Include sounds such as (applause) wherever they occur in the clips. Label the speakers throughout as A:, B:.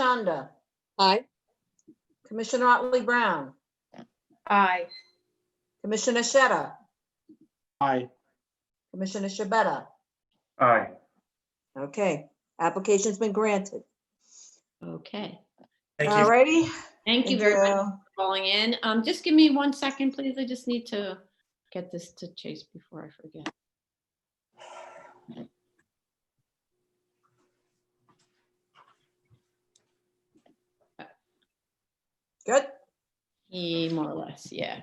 A: Chanda,
B: Aye.
A: Commissioner Otley Brown,
C: Aye.
A: Commissioner Sheta,
D: Aye.
A: Commissioner Shabeta.
D: Aye.
A: Okay, application's been granted.
B: Okay.
D: Thank
A: All
D: you.
A: righty.
B: Thank you very much for calling in. Um, just give me one second, please. I just need to get this to Chase before I forget.
A: Good.
B: Eh, more or less, yeah.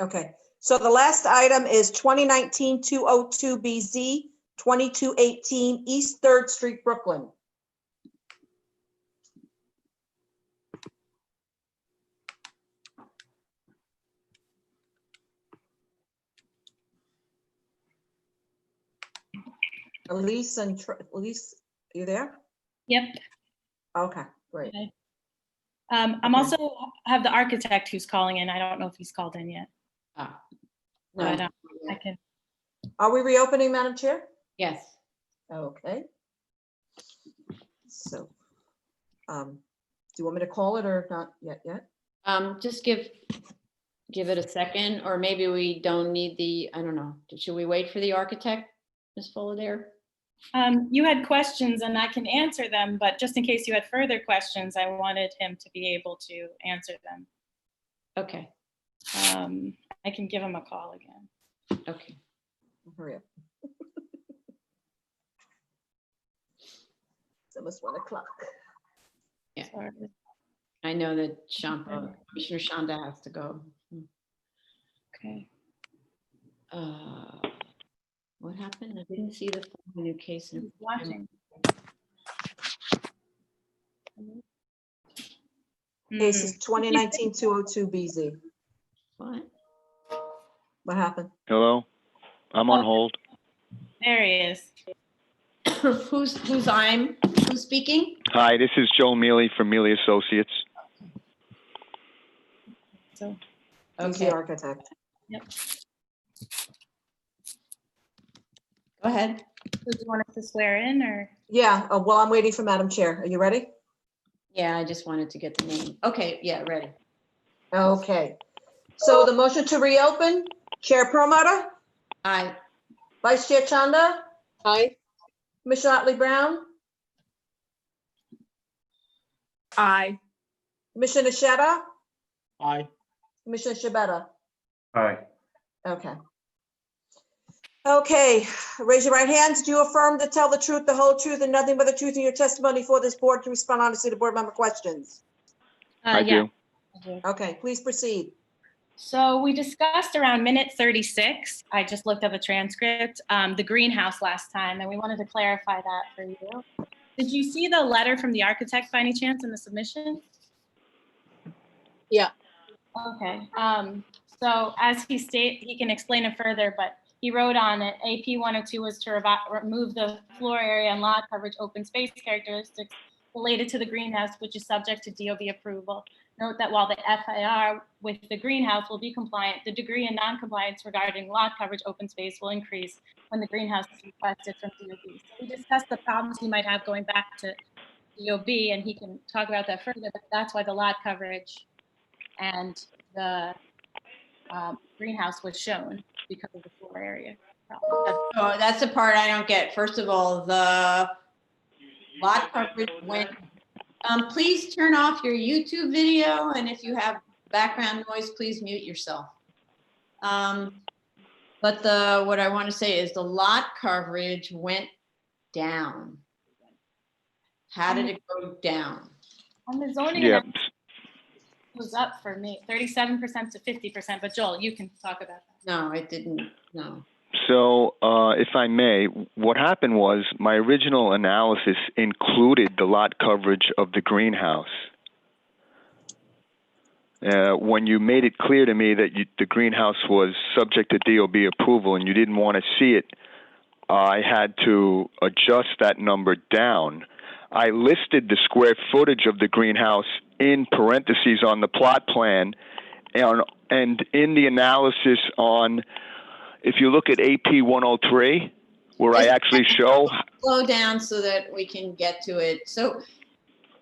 A: Okay, so the last item is 2019-202BZ, 2218 East Third Street, Brooklyn. Elise and, Tr- Elise, you there?
C: Yep.
A: Okay, great.
C: Um, I'm
A: Okay.
C: also have the architect who's calling in. I don't know if he's called in yet,
B: Ah,
C: but
B: no,
C: um, I can.
A: Are we reopening, Madam Chair?
B: Yes,
A: Okay. So, um, do you want me to call it or not yet, yet?
B: um, just give, give it a second, or maybe we don't need the, I don't know. Should we wait for the architect, Ms. Fullader?
C: Um, you had questions and I can answer them, but just in case you had further questions, I wanted him to be able to answer them.
B: Okay,
C: Um, I can give him a call again.
B: okay.
A: Hurry up. (laughs) It's almost one o'clock.
C: Sorry.
B: I know that Shanta, Commissioner Shanda has to go.
C: Okay.
B: Uh, What happened? I didn't see the form of new case. in-
C: He's watching.
A: Case
C: Mm,
B: Hmm.
A: is 2019-202BZ.
B: What?
A: What happened?
E: Hello? I'm on hold.
C: There he is.
B: (laughs) Who's, who's I'm, who's speaking?
E: Hi, this is Joe Mealy from Mealy Associates.
C: So,
A: He's
B: Okay.
A: the architect.
B: Go ahead.
C: so do you want us to swear in or?
A: Yeah, uh, well, I'm waiting for Madam Chair. Are you ready?
B: Yeah, I just wanted to get the name. Okay, yeah, ready.
A: Okay. So the motion to reopen, Chair Perlmutter,
B: Aye.
A: Vice Chair Chanda,
B: Aye.
A: Commissioner Otley Brown,
C: Aye.
A: Commissioner Sheta,
D: Aye.
A: Commissioner Shabeta.
D: Aye.
A: Okay. Okay, raise your right hands. Do you affirm to tell the truth, the whole truth, and nothing but the truth in your testimony for this board to respond honestly to board member questions?
C: Uh,
E: I do.
A: Okay, please proceed.
C: So we discussed around minute 36, I just looked up a transcript, um, the greenhouse last time, and we wanted to clarify that for you. Did you see the letter from the architect by any chance in the submission?
B: Yeah.
C: Okay, um, so as he state, he can explain it further, but he wrote on it, AP 102 was to revi- remove the floor area and lot coverage, open space characteristics related to the greenhouse, which is subject to DOB approval. Note that while the FAR with the greenhouse will be compliant, the degree in noncompliance regarding lot coverage open space will increase when the greenhouse is requested from DOB. So we discussed the problems he might have going back to DOB, and he can talk about that further, but that's why the lot coverage and the um, greenhouse was shown because of the floor area. problem.
B: Oh, that's the part I don't get. First of all, the lot coverage went. Um, please turn off your YouTube video and if you have background noise, please mute yourself. Um, but the, what I want to say is the lot coverage went down. How did it go down?
C: On the zoning,
E: Yeah.
C: it was up for me, 37% to 50%, but Joel, you can talk about that.
B: No, it didn't, no.
E: So, uh, if I may, what happened was my original analysis included the lot coverage of the greenhouse. Uh, when you made it clear to me that you, the greenhouse was subject to DOB approval and you didn't want to see it, I had to adjust that number down. I listed the square footage of the greenhouse in parentheses on the plot plan and, and in the analysis on if you look at AP 103, where I actually show,
B: slow down so that we can get to it. So